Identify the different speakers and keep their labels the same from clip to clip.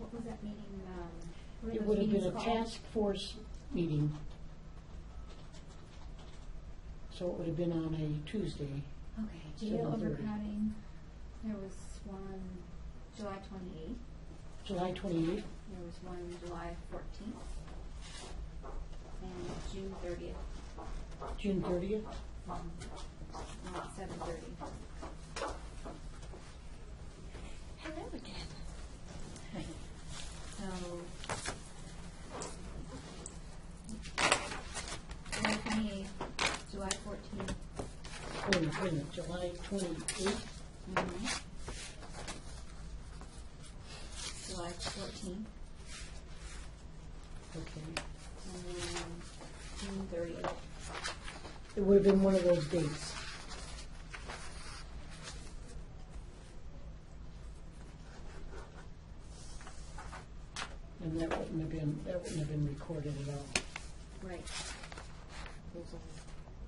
Speaker 1: meeting, um, what are
Speaker 2: It
Speaker 1: those
Speaker 2: would have been
Speaker 1: meetings
Speaker 2: a
Speaker 1: called?
Speaker 2: task force meeting. So it would have been on a Tuesday.
Speaker 1: Okay, jail
Speaker 2: 7:30.
Speaker 1: overcrowding, there was one July twenty-eighth,
Speaker 2: July 28th,
Speaker 1: there was one July fourteenth, and June thirtieth,
Speaker 2: June 30th.
Speaker 1: um, at seven thirty. Hello again. So. July twenty-eighth, July fourteenth,
Speaker 2: Wait a minute, wait a minute, July 28th,
Speaker 1: July fourteenth
Speaker 2: okay.
Speaker 1: and then June thirtieth.
Speaker 2: It would have been one of those dates. And that wouldn't have been, that wouldn't have been recorded at all.
Speaker 1: Right,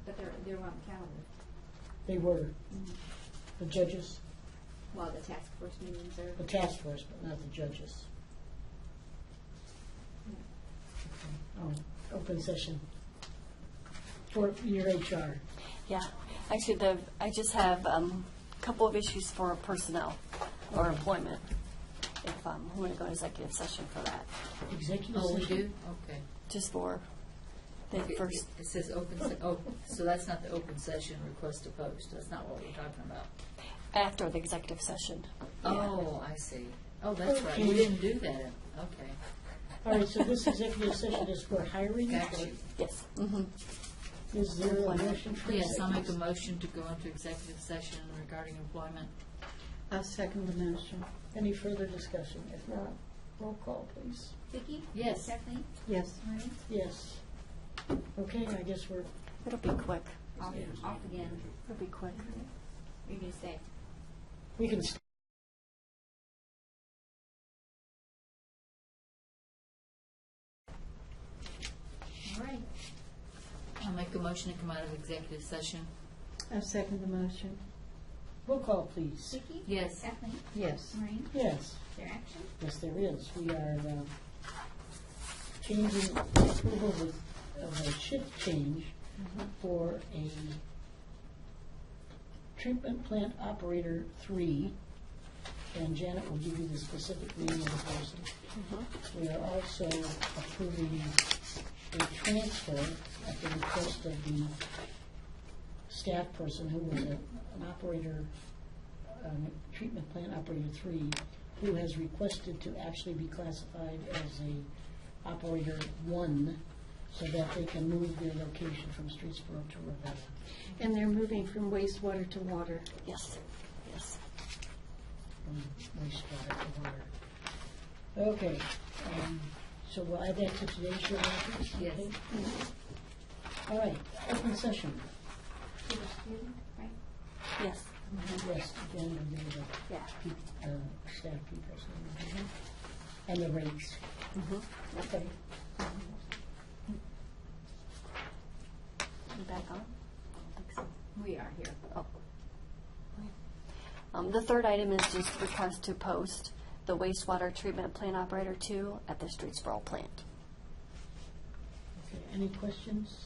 Speaker 1: but they're, they're on calendar.
Speaker 2: They were,
Speaker 1: Mm-hmm.
Speaker 2: the judges,
Speaker 1: Well, the task force meetings are,
Speaker 2: the task force, but not the judges. Oh, open session for your HR.
Speaker 3: Yeah, actually, the, I just have a couple of issues for personnel or employment, if um, we want to go into executive session for that,
Speaker 2: Executive
Speaker 4: Oh, we
Speaker 2: session.
Speaker 4: do? Okay.
Speaker 3: just for the
Speaker 4: Okay,
Speaker 3: first,
Speaker 4: It says open, se- oh, so that's not the open session request to post, that's not what we're talking about.
Speaker 3: after the executive session.
Speaker 4: Oh, I see. Oh, that's right, we didn't do that, okay,
Speaker 2: All right, so this executive session is for hiring.
Speaker 4: got you.
Speaker 3: Yes, mhm.
Speaker 2: Is there a motion for
Speaker 4: Yes, I'll make a
Speaker 2: executive?
Speaker 4: motion to go into executive session regarding employment.
Speaker 2: I'll second the motion. Any further discussion? If not, roll call, please.
Speaker 1: Vicki?
Speaker 4: Yes.
Speaker 1: Kathleen?
Speaker 2: Yes.
Speaker 1: Maureen?
Speaker 2: Yes. Okay, I guess we're,
Speaker 3: it'll be quick,
Speaker 1: Off, off again.
Speaker 3: it'll be quick.
Speaker 1: You're gonna stay.
Speaker 2: we can stop.
Speaker 1: All right.
Speaker 4: I'll make a motion to come out of executive session.
Speaker 5: I second the motion.
Speaker 2: Roll call, please.
Speaker 1: Vicki?
Speaker 4: Yes.
Speaker 1: Kathleen?
Speaker 5: Yes.
Speaker 1: Maureen?
Speaker 2: Yes.
Speaker 1: Their action?
Speaker 2: Yes, there is. We are uh, changing, approval of a- of a shift change for a treatment plant operator three, and Janet will give you the specific name of the person. We are also approving a transfer at the request of the staff person who was a- an operator um, treatment plant operator three, who has requested to actually be classified as a operator one, so that they can move their location from Streetsboro to Ravenna.
Speaker 5: And they're moving from wastewater to water.
Speaker 3: Yes, yes.
Speaker 2: from wastewater to water. Okay, um, so we'll add that to today's show notice?
Speaker 4: Yes.
Speaker 2: okay? All right, open session.
Speaker 1: Give us two, right?
Speaker 3: Yes,
Speaker 2: Yes, again, we'll give you
Speaker 3: yeah.
Speaker 2: the pe- uh, staff people's name. And the rates.
Speaker 3: Mhm.
Speaker 2: Okay.
Speaker 3: You back on? I don't think so.
Speaker 1: We are here.
Speaker 3: Oh. Um, The third item is just request to post the wastewater treatment plant operator two at the Streetsboro plant.
Speaker 2: Okay, any questions?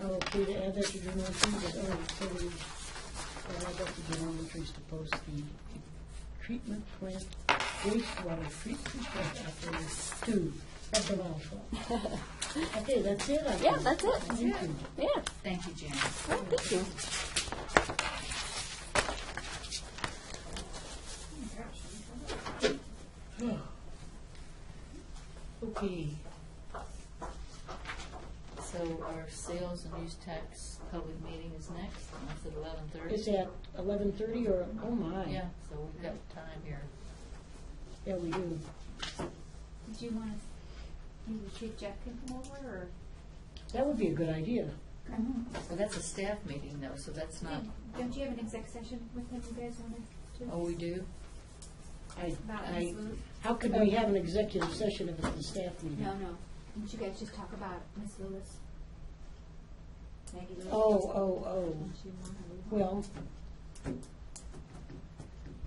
Speaker 2: Okay, to add that to your motion, that, oh, so we, uh, add that to general interest to post the treatment plant, wastewater treatment plant operator two, that's a mouthful. Okay, that's it, I think.
Speaker 3: Yeah, that's it.
Speaker 2: Thank you.
Speaker 3: Yeah,
Speaker 4: Thank you, Janet.
Speaker 3: well, thank you.
Speaker 2: Yeah. Okay,
Speaker 4: So our sales and use tax public meeting is next, and that's at eleven
Speaker 2: it's
Speaker 4: thirty.
Speaker 2: at eleven thirty or, oh my.
Speaker 4: Yeah, so we've got time here.
Speaker 2: Yeah, we do.
Speaker 1: Did you want us, you should Jeff can come over or?
Speaker 2: That would be a good idea.
Speaker 1: Mm-hmm.
Speaker 4: Well, that's a staff meeting though, so that's not,
Speaker 1: Don't you have an exec session with him you guys wanna do?
Speaker 4: oh, we do?
Speaker 2: I,
Speaker 1: About
Speaker 2: I,
Speaker 1: Ms. Lewis?
Speaker 2: how could we have an executive session if it's the staff meeting?
Speaker 1: No, no. Didn't you guys just talk about Miss Lewis? Maggie Lewis?
Speaker 2: Oh, oh, oh.
Speaker 1: Don't you want her?
Speaker 2: Well,